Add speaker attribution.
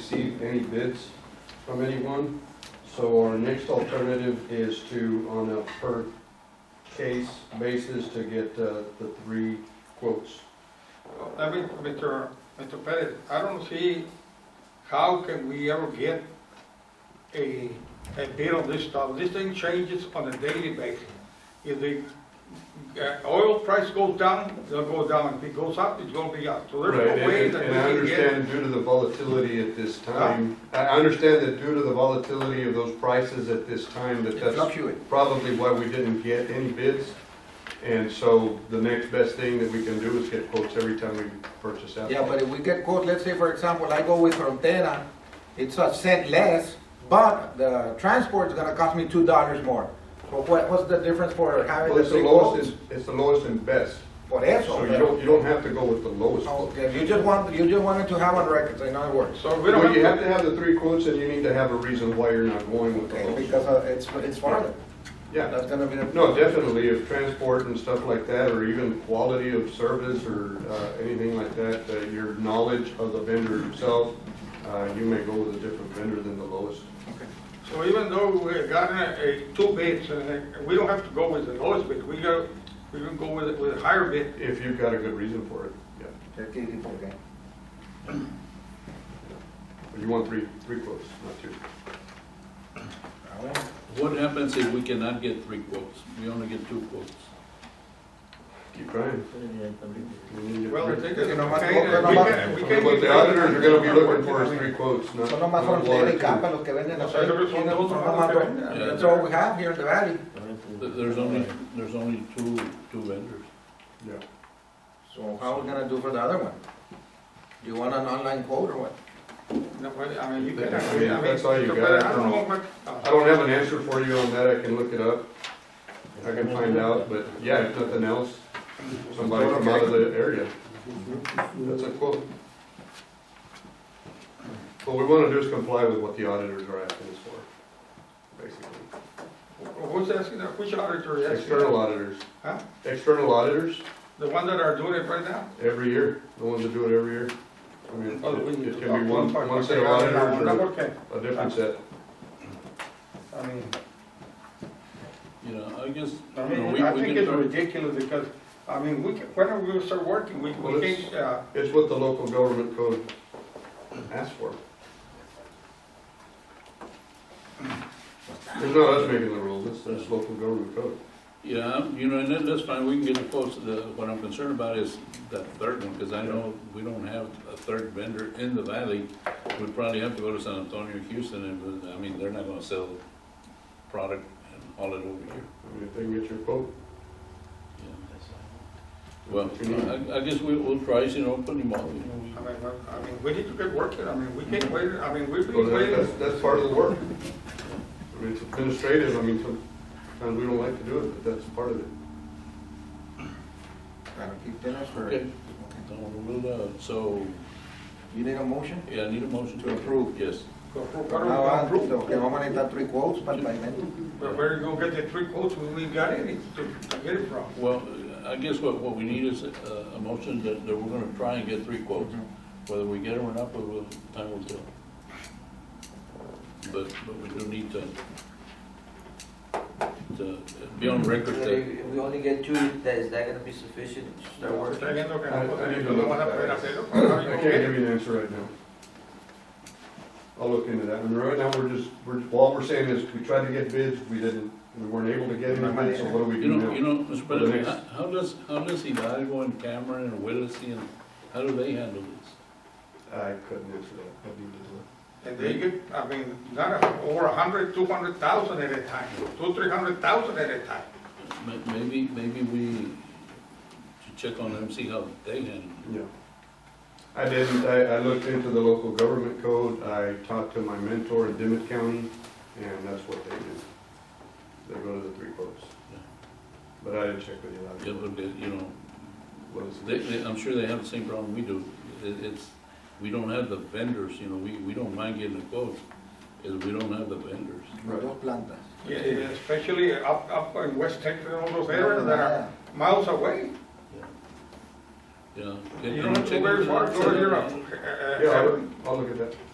Speaker 1: received any bids from anyone. So our next alternative is to, on a per case basis, to get uh, the three quotes.
Speaker 2: I mean, Mr. Mr. Perez, I don't see how can we ever get a, a bid on this stuff. This thing changes on a daily basis. If the uh, oil price goes down, it'll go down. If it goes up, it's gonna be up. So
Speaker 1: Right,
Speaker 2: there's no way
Speaker 1: and-
Speaker 2: that
Speaker 1: and I
Speaker 2: we can get.
Speaker 1: understand due to the volatility at this time, I I understand that due to the volatility of those prices at this time, that that's probably why we didn't get any bids. And so the next best thing that we can do is get quotes every time we purchase out.
Speaker 3: Yeah, but if we get quote, let's say for example, I go with Frontera, it's a cent less, but the transport's gonna cost me two dollars more. But what, what's the difference for having
Speaker 1: Well,
Speaker 3: the
Speaker 1: it's the
Speaker 3: three
Speaker 1: lowest,
Speaker 3: quotes?
Speaker 1: and- it's the lowest and best,
Speaker 3: For eso.
Speaker 1: so you
Speaker 3: pero-
Speaker 1: don't, you don't have to go with the lowest.
Speaker 3: Okay, you just want, you just wanted to have on record, in other words.
Speaker 2: So we
Speaker 1: Well,
Speaker 2: don't
Speaker 1: you have
Speaker 2: have,
Speaker 1: to have the three quotes and you need to have a reason why you're not going with the
Speaker 3: Okay,
Speaker 1: lowest.
Speaker 3: because uh, it's, it's farther.
Speaker 1: Yeah.
Speaker 3: That's gonna be the.
Speaker 1: No, definitely, if transport and stuff like that, or even quality of service or uh, anything like that, uh, your knowledge of the vendor himself, uh, you may go with a different vendor than the lowest.
Speaker 2: so even though we got a, a two bids, and uh, we don't have to go with the lowest bid. We go, we can go with, with a higher bid.
Speaker 1: If you've got a good reason for it, yeah.
Speaker 3: Okay, okay.
Speaker 1: But You want three, three quotes, not two.
Speaker 3: Ah, bueno.
Speaker 4: What happens if we cannot get three quotes? We only get two quotes?
Speaker 1: Keep trying. We need to-
Speaker 2: Well, I think it's
Speaker 3: Que nomás-
Speaker 2: okay, and we can, we can.
Speaker 1: What the auditors are gonna be looking for is three quotes, not
Speaker 3: Son
Speaker 1: not
Speaker 3: nomás
Speaker 1: one
Speaker 3: Frontera
Speaker 1: or
Speaker 3: y Capa
Speaker 1: two.
Speaker 3: los que venden
Speaker 2: Los otros
Speaker 3: aceite.
Speaker 2: son dos,
Speaker 3: Son
Speaker 2: ¿no?
Speaker 3: nomás dos.
Speaker 4: Yeah.
Speaker 3: That's all we have here in the valley.
Speaker 4: Th- There's only, there's only two, two vendors.
Speaker 1: Yeah.
Speaker 3: So how are we gonna do for the other one? Do you want an online quote or what?
Speaker 2: No, but, I mean, you can.
Speaker 1: I mean,
Speaker 2: I
Speaker 1: that's all you
Speaker 2: mean,
Speaker 1: got.
Speaker 2: but I don't know what.
Speaker 1: I don't have an answer for you on that, I can look it up, I can find out, but yeah, if nothing else, somebody from out of the area. That's a quote. What we wanna do is comply with what the auditors are asking us for, basically.
Speaker 2: uh, Who's asking that? Which auditor is asking?
Speaker 1: External auditors,
Speaker 2: Huh?
Speaker 1: external auditors,
Speaker 2: The one that are doing it right now?
Speaker 1: every year, the ones that do it every year. I mean,
Speaker 2: Oh, we need
Speaker 1: it
Speaker 2: to
Speaker 1: can be one,
Speaker 2: talk to
Speaker 1: one set of
Speaker 2: them.
Speaker 1: auditors
Speaker 2: Okay,
Speaker 1: or a different set.
Speaker 2: I mean,
Speaker 4: You know, I guess,
Speaker 2: I
Speaker 4: you know,
Speaker 2: mean,
Speaker 4: we,
Speaker 2: I
Speaker 4: we
Speaker 2: think
Speaker 4: can
Speaker 2: it's
Speaker 4: try.
Speaker 2: ridiculous because, I mean, we, can- when are we gonna start working? We,
Speaker 1: Well,
Speaker 2: we
Speaker 1: it's-
Speaker 2: can't, uh,
Speaker 1: It's what the local government code asks for. It's not us making the rules, it's, it's local government code.
Speaker 4: Yeah, you know, and that- that's fine, we can get the quotes, the, what I'm concerned about is that third one, because I know we don't have a third vendor in the valley. We'd probably have to go to San Antonio, Houston, and, uh, I mean, they're not gonna sell product and haul it over here.
Speaker 1: I mean, if they can get your quote,
Speaker 4: you know. Well,
Speaker 1: What you need.
Speaker 4: I, I guess we, we'll price, you know, put them all, you know, we.
Speaker 2: I mean, but- I mean, we need to get working. I mean, we can't wait, I mean, we've
Speaker 1: Mm-hmm. Well,
Speaker 2: been
Speaker 1: that- that's,
Speaker 2: waiting.
Speaker 1: that's part of the work. I mean, it's administrative, I mean, sometimes we don't like to do it, but that's part of it.
Speaker 3: Gotta keep dinner for.
Speaker 4: Okay. So, we'll, uh, So,
Speaker 3: You need a motion?
Speaker 4: yeah, I need a motion to
Speaker 3: To
Speaker 4: approve, yes.
Speaker 2: Go for-
Speaker 3: Ah,
Speaker 2: what
Speaker 3: va,
Speaker 2: are we gonna
Speaker 3: Okay, vamos a necesitar three quotes para el pavimento.
Speaker 2: approve? But where you gonna get the three quotes when we got any to to get it from?
Speaker 4: Well, I guess what, what we need is a, a motion that, that we're gonna try and get three quotes. Whether we get them or not, we will, time will tell. But, but we do need to, to be on record that,
Speaker 5: If we only get two, that, is that gonna be sufficient to start working?
Speaker 2: Está viendo que nosotros
Speaker 1: I- I need to
Speaker 2: no
Speaker 1: look
Speaker 2: van a
Speaker 1: at
Speaker 2: poder
Speaker 1: that.
Speaker 2: hacerlo.
Speaker 1: I can't give you an answer right now. I'll look into that, I mean, right now, we're just, we're, all we're saying is, we tried to get bids, we didn't, we weren't able to get any bids, so what do we
Speaker 4: you
Speaker 1: do
Speaker 4: know, you
Speaker 1: now?
Speaker 4: know, Mr.
Speaker 1: For the
Speaker 4: President,
Speaker 1: next-
Speaker 4: how does, how does Hidalgo and Cameron and Willacy and, how do they handle this?
Speaker 1: I couldn't answer that, I need to look.
Speaker 2: And they get, I mean, not a- over a hundred, two hundred thousand at a time, two, three hundred thousand at a time.
Speaker 4: Ma- Maybe, maybe we should check on them, see how they handle it.
Speaker 1: Yeah. I didn't, I, I looked into the local government code, I talked to my mentor in Dimmitt County, and that's what they do. They go to the three quotes.
Speaker 4: Yeah.
Speaker 1: But I didn't check with you, I
Speaker 4: It would be, you know,
Speaker 1: what is
Speaker 4: They, they, I'm sure they have the same problem we do. It, it's, we don't have the vendors, you know, we, we don't mind getting the quotes, is we don't have the vendors.
Speaker 1: Right.
Speaker 3: Dos plantas.
Speaker 2: Yeah, Especially up, up in West Texas and all those areas that are
Speaker 3: Yeah.
Speaker 2: miles away.
Speaker 4: Yeah.
Speaker 2: You don't have to go very far, go to Europe. uh, uh,
Speaker 1: Yeah, I'll, I'll look at that.